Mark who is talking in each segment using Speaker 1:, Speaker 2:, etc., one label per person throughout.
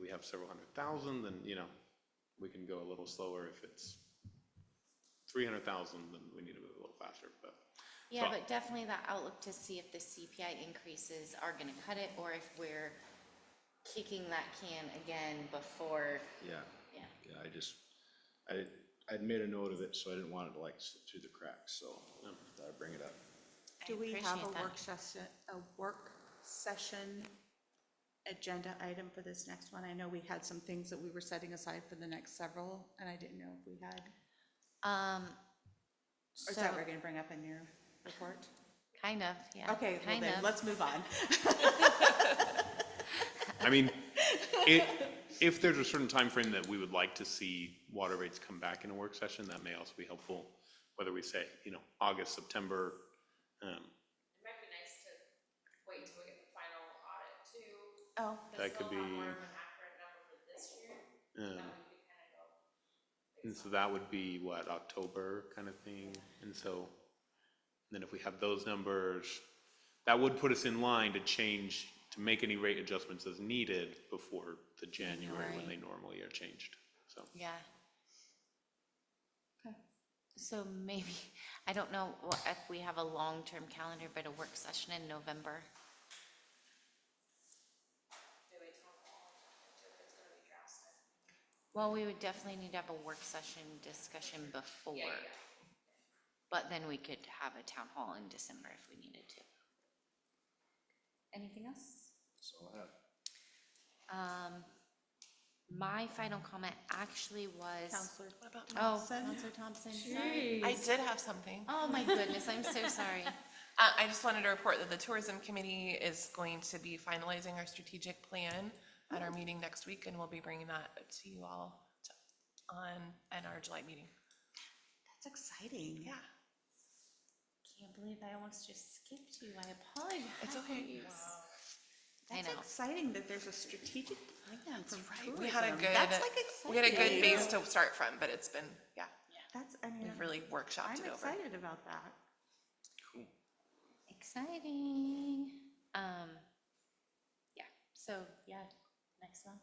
Speaker 1: we have several hundred thousand, then, you know, we can go a little slower. If it's three hundred thousand, then we need to move a little faster, but.
Speaker 2: Yeah,
Speaker 1: So-
Speaker 2: but definitely the outlook to see if the CPI increases are gonna cut it, or if we're kicking that can again before,
Speaker 3: Yeah,
Speaker 2: yeah.
Speaker 3: yeah, I just, I, I'd made a note of it, so I didn't want it to like slip through the cracks, so I bring it up.
Speaker 2: I
Speaker 4: Do we have a
Speaker 2: appreciate that.
Speaker 4: work session, Oh, a work session agenda item for this next one? I know we had some things that we were setting aside for the next several, and I didn't know if we had.
Speaker 2: Um,
Speaker 4: Or is that what
Speaker 2: so,
Speaker 4: we're gonna bring up in your report?
Speaker 2: kind of, yeah.
Speaker 4: Okay, well
Speaker 2: kind
Speaker 4: then,
Speaker 2: of.
Speaker 4: let's move on.
Speaker 1: I mean, it, if there's a certain time frame that we would like to see water rates come back in a work session, that may also be helpful. Whether we say, you know, August, September, um,
Speaker 5: It might be nice to wait till we get the final audit too.
Speaker 4: Oh,
Speaker 1: That could
Speaker 5: Still have more of
Speaker 1: be-
Speaker 5: an accurate number for this year, that
Speaker 1: um,
Speaker 5: we could kind of go.
Speaker 1: And so that would be what, October kind of thing? And so, then if we have those numbers, that would put us in line to change, to make any rate adjustments as needed before the January when they normally are changed, so.
Speaker 2: Yeah. So maybe, I don't know wha- if we have a long-term calendar, but a work session in November.
Speaker 5: Do we tell them all, if it's gonna be drastic?
Speaker 2: Well, we would definitely need to have a work session discussion before. But then we could have a town hall in December if we needed to. Anything else?
Speaker 3: So I'll have,
Speaker 2: Um, my final comment actually was,
Speaker 4: Counselor
Speaker 2: oh,
Speaker 4: Thompson.
Speaker 2: Counselor Thompson, sorry.
Speaker 6: I did have something.
Speaker 2: Oh, my goodness, I'm so sorry.
Speaker 6: Uh, I just wanted to report that the tourism committee is going to be finalizing our strategic plan at
Speaker 4: Oh.
Speaker 6: our meeting next week, and we'll be bringing that to you all to- on, at our July meeting.
Speaker 4: That's exciting.
Speaker 6: Yeah,
Speaker 2: Can't believe I almost just skipped you. I apologize.
Speaker 6: it's okay.
Speaker 2: I
Speaker 4: That's
Speaker 2: know.
Speaker 4: exciting that there's a strategic plan from tourism.
Speaker 6: We had a
Speaker 4: That's like
Speaker 6: good,
Speaker 4: exciting.
Speaker 6: we had a good base to start from, but it's been, yeah,
Speaker 4: That's, I mean,
Speaker 6: we've really workshopped
Speaker 4: I'm
Speaker 6: it over.
Speaker 4: excited about that.
Speaker 2: Exciting. Um, yeah, so, yeah, next month.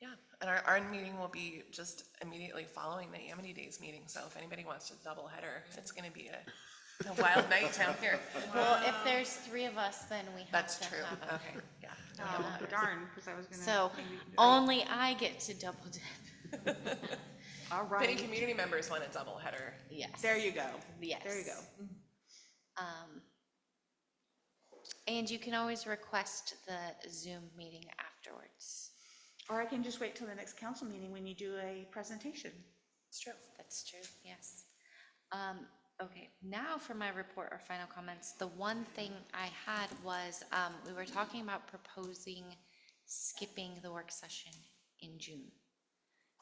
Speaker 6: Yeah, and our, our meeting will be just immediately following the Amity Days meeting, so if anybody wants to double header, it's gonna be a a wild night down here.
Speaker 2: Well, if there's three of us, then we have
Speaker 6: That's
Speaker 2: to
Speaker 6: true,
Speaker 2: have a-
Speaker 6: okay, yeah.
Speaker 4: Oh, darn, because I was gonna.
Speaker 2: Um, So only I get to double dip.
Speaker 4: All
Speaker 6: If any
Speaker 4: right,
Speaker 6: community members want a double header,
Speaker 2: Yes.
Speaker 4: there you go.
Speaker 2: Yes.
Speaker 4: There you go.
Speaker 2: Um, And you can always request the Zoom meeting afterwards.
Speaker 4: Or I can just wait till the next council meeting when you do a presentation.
Speaker 2: It's true. That's true, yes. Um, Okay, now for my report or final comments. The one thing I had was, um, we were talking about proposing skipping the work session in June.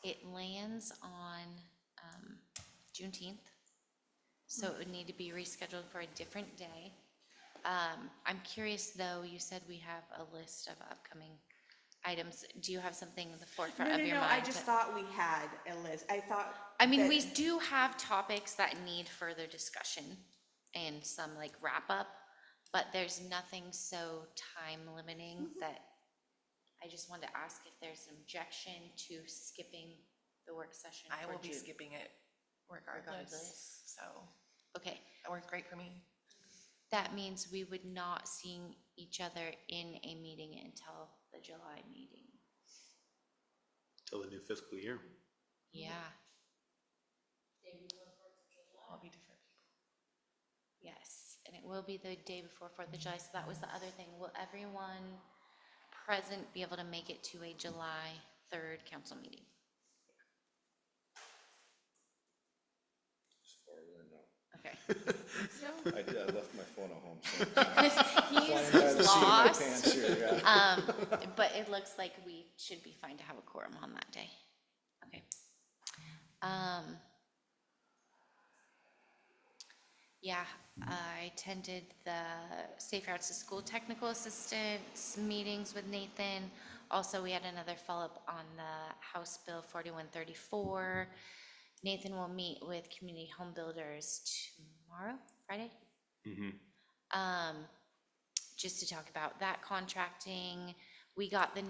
Speaker 2: It lands on um, Juneteenth, so it would need to be rescheduled for a different day. Um, I'm curious, though, you said we have a list of upcoming items. Do you have something in the forefront
Speaker 4: No,
Speaker 2: of
Speaker 4: no,
Speaker 2: your
Speaker 4: no,
Speaker 2: mind?
Speaker 4: I just
Speaker 2: that-
Speaker 4: thought we had a list. I thought.
Speaker 2: I mean,
Speaker 4: that-
Speaker 2: we do have topics that need further discussion and some like wrap up, but there's nothing so time limiting
Speaker 6: Mm-hmm.
Speaker 2: that I just wanted to ask if there's an objection to skipping the work session
Speaker 6: I
Speaker 2: for
Speaker 6: will be
Speaker 2: June.
Speaker 6: skipping it
Speaker 2: Regardless.
Speaker 6: regardless, so
Speaker 2: Okay,
Speaker 6: that worked great for me.
Speaker 2: that means we would not seeing each other in a meeting until the July meeting.
Speaker 1: Till the new fiscal year.
Speaker 6: Mm-hmm.
Speaker 2: Yeah,
Speaker 6: I'll be different people.
Speaker 2: yes, and it will be the day before Fourth of July, so that was the other thing. Will everyone present be able to make it to a July third council meeting? Okay.
Speaker 3: I did, I left my phone at home, so.
Speaker 2: He's
Speaker 3: Flying by the seat of my
Speaker 2: lost,
Speaker 3: pants here, yeah.
Speaker 2: um, but it looks like we should be fine to have a quorum on that day. Okay. Um. Yeah, I attended the Safe Routes to School Technical Assistance meetings with Nathan. Also, we had another follow-up on the House Bill forty-one thirty-four. Nathan will meet with community home builders tomorrow, Friday? Um, just to talk about that contracting. We got the